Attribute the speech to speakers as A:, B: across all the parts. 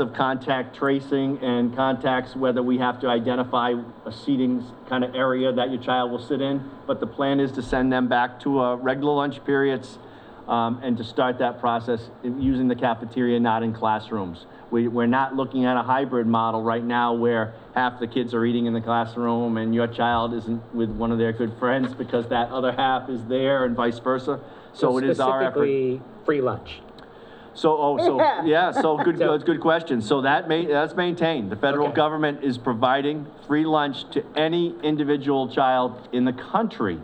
A: of contact tracing and contacts, whether we have to identify a seating kind of area that your child will sit in. But the plan is to send them back to uh, regular lunch periods um, and to start that process in- using the cafeteria, not in classrooms. We, we're not looking at a hybrid model right now where half the kids are eating in the classroom and your child isn't with one of their good friends because that other half is there and vice versa. So it is our effort.
B: Specifically, free lunch.
A: So, oh, so, yeah, so good,
B: So-
A: good, good question. So that ma, that's maintained. The federal
B: Okay.
A: government is providing free lunch to any individual child in the country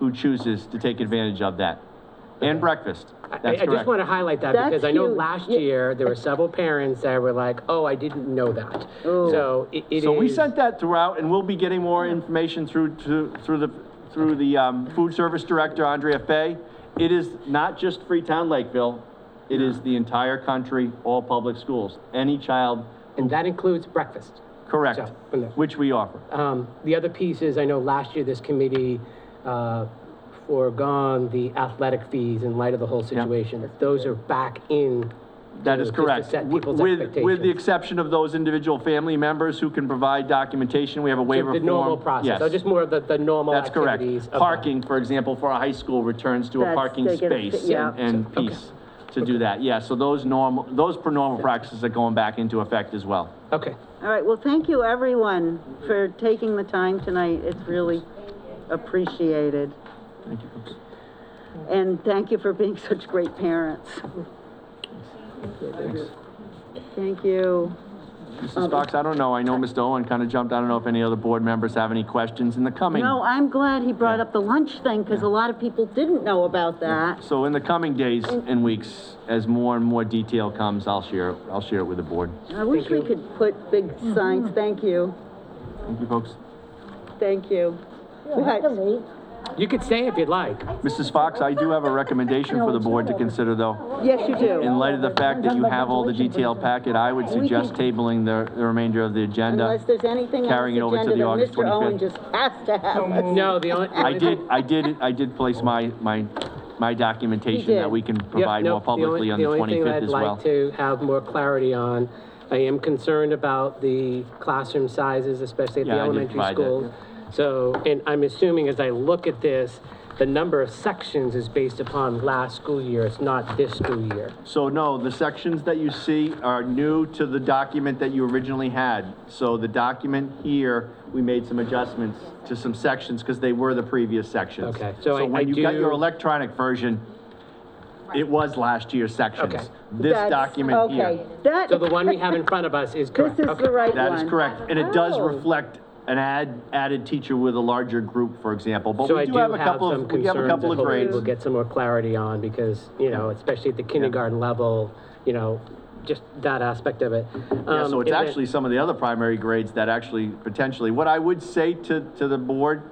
A: who chooses to take advantage of that. And breakfast.
B: I,
A: That's
B: I just want
A: correct.
B: to highlight that
C: That's
B: because I know
C: huge.
B: last
C: Yeah.
B: year, there were several parents that were like, oh, I didn't know that.
C: Oh.
B: So it it is.
A: So we sent that throughout and we'll be getting more information through, to, through the, through the, um, food service director, Andrea Fay. It is not just Freetown Lakeville. It is the entire country, all public schools. Any child,
B: And that includes breakfast.
A: correct,
B: So, from there.
A: which we offer.
B: Um, The other piece is, I know last year, this committee uh, foregone the athletic fees in light of the whole situation. Those are back in.
A: That is
B: to- just to
A: correct.
B: set
A: Wi-
B: people's
A: With, with the
B: expectations.
A: exception of those individual family members who can provide documentation, we have a waiver form.
B: The normal process, so
A: Yes,
B: just more of the, the normal
A: That's correct.
B: activities. of that.
A: Parking, for example, for a high school returns to a
C: That's-
A: parking
C: they get a-
A: space
C: yeah.
A: and- and piece to do that. Yeah, so those normal, those per normal practices are going back into effect as well.
B: Okay,
C: All right, well, thank you, everyone, for taking the time tonight. It's really appreciated.
A: Thank you.
C: And thank you for being such great parents. Thank you. Um,
A: Mrs. Fox, I don't know, I know Mr. Owen kind of jumped, I don't know if any other board members have any questions in the coming.
C: No, I'm glad he brought up the lunch thing, because a lot of people didn't know about that.
A: So in the coming days and weeks, as more and more detail comes, I'll share, I'll share it with the board.
C: I wish we could put big
B: Mm-hmm.
C: signs, thank you,
A: Thank you, folks.
C: thank you. What?
B: you could stay if you'd like.
A: Mrs. Fox, I do have a recommendation for the board to consider, though.
C: Yes, you
A: In
C: do,
A: light of the fact that you have all the detailed packet, I would suggest tabling the the remainder of the
C: unless
A: agenda.
C: there's anything on
A: uh, Carrying it
C: this
A: over to
C: agenda
A: the
C: that
A: August
C: Mr. Owen
A: 25th.
C: just has to have. us.
B: Oh, No, the only.
A: I did, I did, I did place my, my, my documentation that we can
B: Yeah,
A: provide
B: no,
A: more publicly on the
B: only thing
A: 25th as
B: I'd like
A: well.
B: to have more clarity on, I am concerned about the classroom sizes, especially at the
A: Yeah, I did
B: elementary
A: provide that,
B: schools. So, and I'm assuming as I look at this, the number of sections is based upon last school year, it's not this school year.
A: So no, the sections that you see are new to the document that you originally had. So the document here, we made some adjustments to some sections because they were the previous sections.
B: Okay, so I- I
A: when you got
B: do-
A: your electronic version, it was last year's
B: Okay.
A: sections. This
C: That's-
A: document
C: Okay,
A: here.
C: that,
B: So the one we have in front of us is
C: this
B: correct.
C: is
B: Okay.
C: the right one.
A: That is correct, and it does
C: Oh.
A: reflect an add, added teacher with a larger group, for example. But
B: So
A: we
B: I
A: do have a couple
B: some
A: of, we have a
B: concerns
A: couple
B: that
A: of
B: hopefully
A: grades.
B: We'll get some more clarity on because, you know, especially at the kindergarten level, you know, just that aspect of it. Um,
A: Yeah, so it's actually some of the other primary grades that actually potentially, what I would say to, to the board,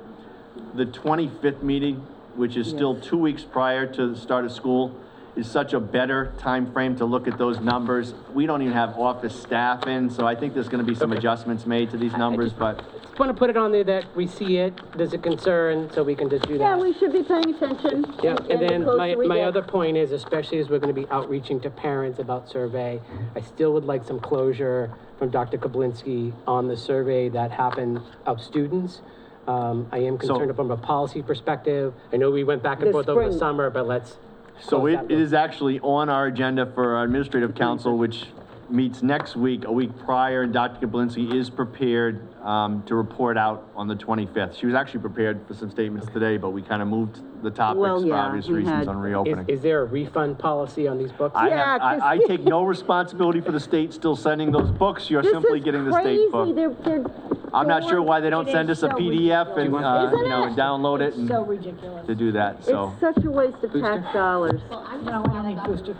A: the 25th meeting, which is still two weeks prior to the start of school, is such a better time frame to look at those numbers. We don't even have office staff in, so I think there's going to be some adjustments made to these numbers, but
B: Just want to put it on there that we see it, there's a concern, so we can just do that.
C: Yeah, we should be paying attention.
B: Yeah, and
C: the
B: then
C: closer
B: my,
C: we
B: my
C: get-
B: other point is, especially as we're gonna be outreaching to parents about survey, I still would like some closure from Dr. Kablinsky on the survey that happened of students. Um, I am concerned from a policy perspective. I know we went back and
C: This
B: forth over the
C: spring.
B: summer, but let's.
A: So
B: close
A: it
B: that
A: it
B: loop.
A: is actually on our agenda for our administrative council, which meets next week, a week prior, and Dr. Kablinsky is prepared um, to report out on the 25th. She was actually prepared for some statements today, but we kind of moved the topics for
C: yeah,
A: obvious
C: we
A: reasons
C: had-
A: on
B: Is,
A: reopening.
B: is there a refund policy on these books?
A: I
C: Yeah,
A: have, I I
C: this-
A: take no responsibility for the state still sending those books, you're
C: This
A: simply
C: is
A: getting the
C: crazy.
A: state book.
C: They're- they're
A: I'm not sure
C: going-
A: why they don't
D: It
A: send
D: is
A: us a
D: so
A: PDF and,
D: ridiculous.
A: uh, you
C: Isn't
A: know,
C: it?
A: and download it
D: So
A: and
D: ridiculous.
A: to do that, so.
C: It's such a waste of tax dollars.
D: No, I don't think booster.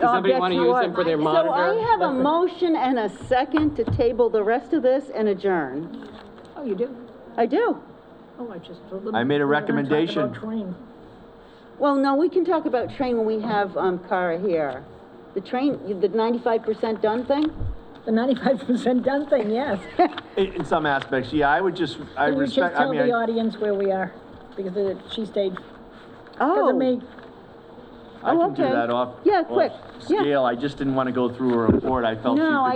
C: Does
B: somebody wanna use them for their
C: So
B: monitor?
C: I have a motion and a second to table the rest of this and adjourn.
D: Oh, you do?
C: I do.
D: Oh, I just told them.
A: I made a
D: we were gonna talk about
A: recommendation.
D: train.
C: Well, no, we can talk about train when we have, um, Cara here. The train, the ninety-five percent done thing?
D: The ninety-five percent done thing, yes.
A: In in some aspects, yeah, I would just, I
D: Can you just
A: respect, I
D: tell
A: mean.
D: the
A: I-
D: audience where we are? Because the- she stayed, because
C: Oh,
D: of me.
A: I
C: Oh,
A: can do
C: okay.
A: that off.
C: Yeah,
A: off
C: quick. Yeah.
A: Scale, I just didn't want to go through a report, I felt she
C: No,
A: could